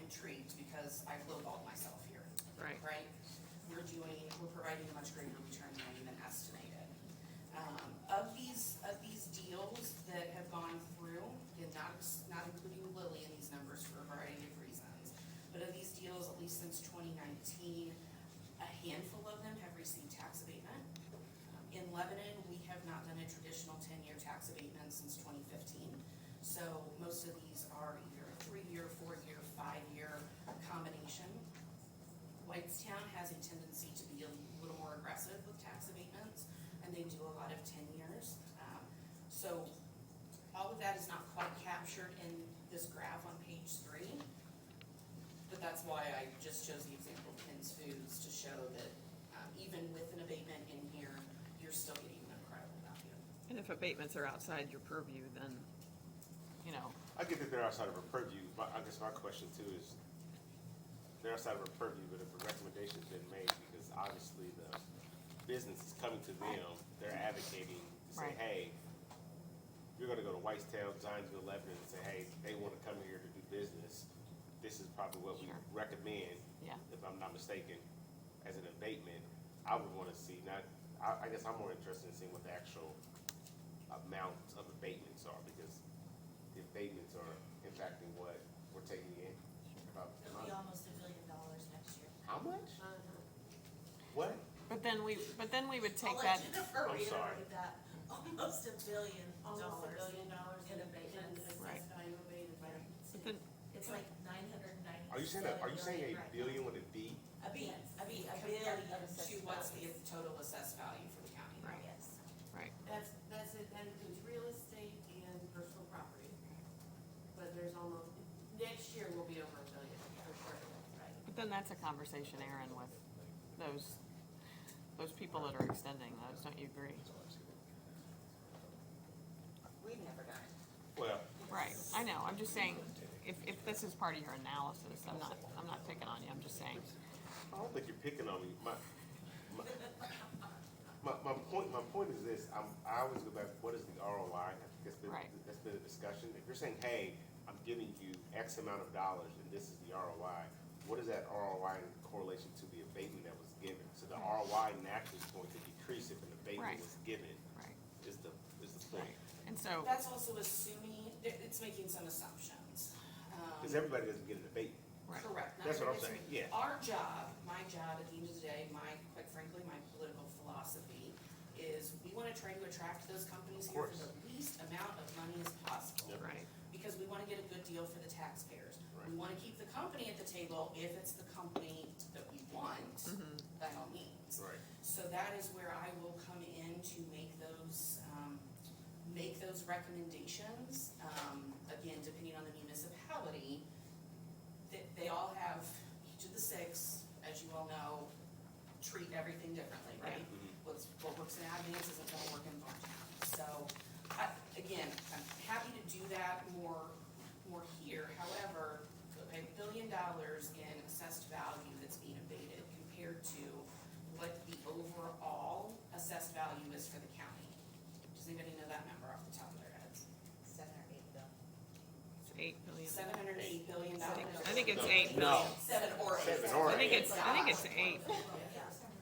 intrigued because I've lowballed myself here, Right. right? We're doing, we're providing a much greater return than I even estimated. Um, of these, of these deals that have gone through, and not, ex- not including Lily in these numbers for a variety of reasons, but of these deals, at least since twenty nineteen, a handful of them have received tax abatement. Um, In Lebanon, we have not done a traditional ten-year tax abatement since twenty fifteen. So most of these are either a three-year, four-year, five-year combination. Whitestown has a tendency to be a little more aggressive with tax abatements, and they do a lot of ten years. Um, So all of that is not quite captured in this graph on page three. But that's why I just chose the example of Ken's Foods to show that um, even with an abatement in here, you're still getting an incredible value. And if abatements are outside your purview, then, you know, I get that they're outside of our purview, but I guess my question too is, they're outside of our purview, but if a recommendation's been made, because obviously the business is coming to them, they're advocating to say, Right. hey, you're gonna go to Whitestown, Zionsville, Lebanon, and say, hey, they wanna come here to do business, this is probably what we Sure. recommend, yeah, if I'm not mistaken, as an abatement, I would wanna see, not, I, I guess I'm more interested in seeing what the actual amount of abatements are, because the abatements are impacting what we're taking in. About a It'll be month. almost a billion dollars next year. How much? What? but then we, but then we would take I'll that, let Jennifer I'm reiterate sorry. that. Almost a billion almost a dollars. billion dollars in in abatements, abatements. Right. assessed value abated by the but city. then, It's like nine hundred and ninety. Are you saying, a- are you saying a billion with a B? A B, a B, a billion. Compared to what's the total assessed value for the county. Right. Yes. right, That's, that's it, that includes real estate and personal property. But there's almost, next year will be over a billion, for sure, right? but then that's a conversation, Aaron, with those, those people that are extending those, don't you agree? We've never done it. Well, Right, I know, I'm just saying, if, if this is part of your analysis, I'm not, I'm not picking on you, I'm just saying, I don't think you're picking on me. My, my, my, my point, my point is this, I'm, I always go back, what is the ROI? I think that's been, Right. that's been a discussion. If you're saying, hey, I'm giving you X amount of dollars and this is the ROI, what is that ROI in correlation to the abatement that was given? So the ROI naturally is going to decrease if an Right. abatement was given, right, is the, is the right. point. And so, That's also assuming, it- it's making some assumptions. Um, Because everybody doesn't get an abatement. right, Correct. That's what I'm Not everybody's- saying, yeah. Our job, my job at the end of the day, my, quite frankly, my political philosophy is we wanna try to attract those companies Of here for course. the least amount of money as possible. Yep. right, Because we wanna get a good deal for the taxpayers. We Right. wanna keep the company at the table if it's the company that we want, Mm-hmm. by all means. Right. So that is where I will come in to make those, um, make those recommendations. Um, again, depending on the municipality, they, they all have, each of the six, as you all know, treat everything differently, right? What's, what works in Aggie's isn't gonna work in Barntown. So, I, again, I'm happy to do that more, more here, however, a billion dollars in assessed value that's being abated compared to what the overall assessed value is for the county. Does anybody know that number off the top of their heads? Seven or eight billion. it's eight billion. Seven hundred and eight billion dollars. I think it's No, eight no. billion, Seven or eight. Seven or I think it's, I think it's eight,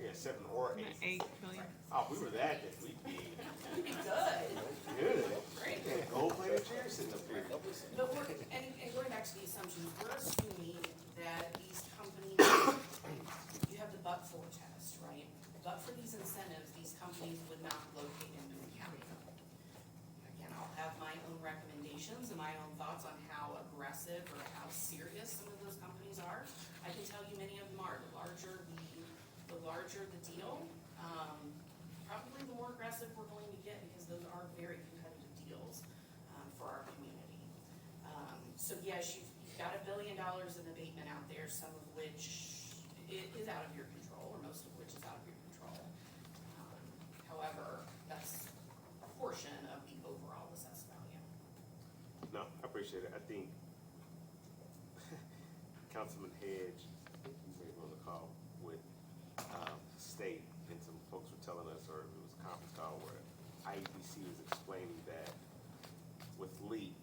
Yeah, seven or Isn't it eight eight. billion, Oh, if we were that, then we'd be Pretty good, good. right? Yeah, gold plated chairs sitting up here. But we're, and, and going back to the assumptions, we're assuming that these companies, you have the but for test, right? But for these incentives, these companies would not locate in Boone County. Again, I'll have my own recommendations and my own thoughts on how aggressive or how serious some of those companies are. I can tell you many of them are, the larger the, the larger the deal, um, probably the more aggressive we're going to get because those are very competitive deals, um, for our community. Um, so yes, you've, you've got a billion dollars in abatement out there, some of which i- is out of your control, or most of which is out of your control. Um, However, that's a portion of the overall assessed value. No, I appreciate it. I think Councilman Hedge, he was on the call with, um, state, and some folks were telling E us, or it was a conference call where IEDC was explaining that with LEAP,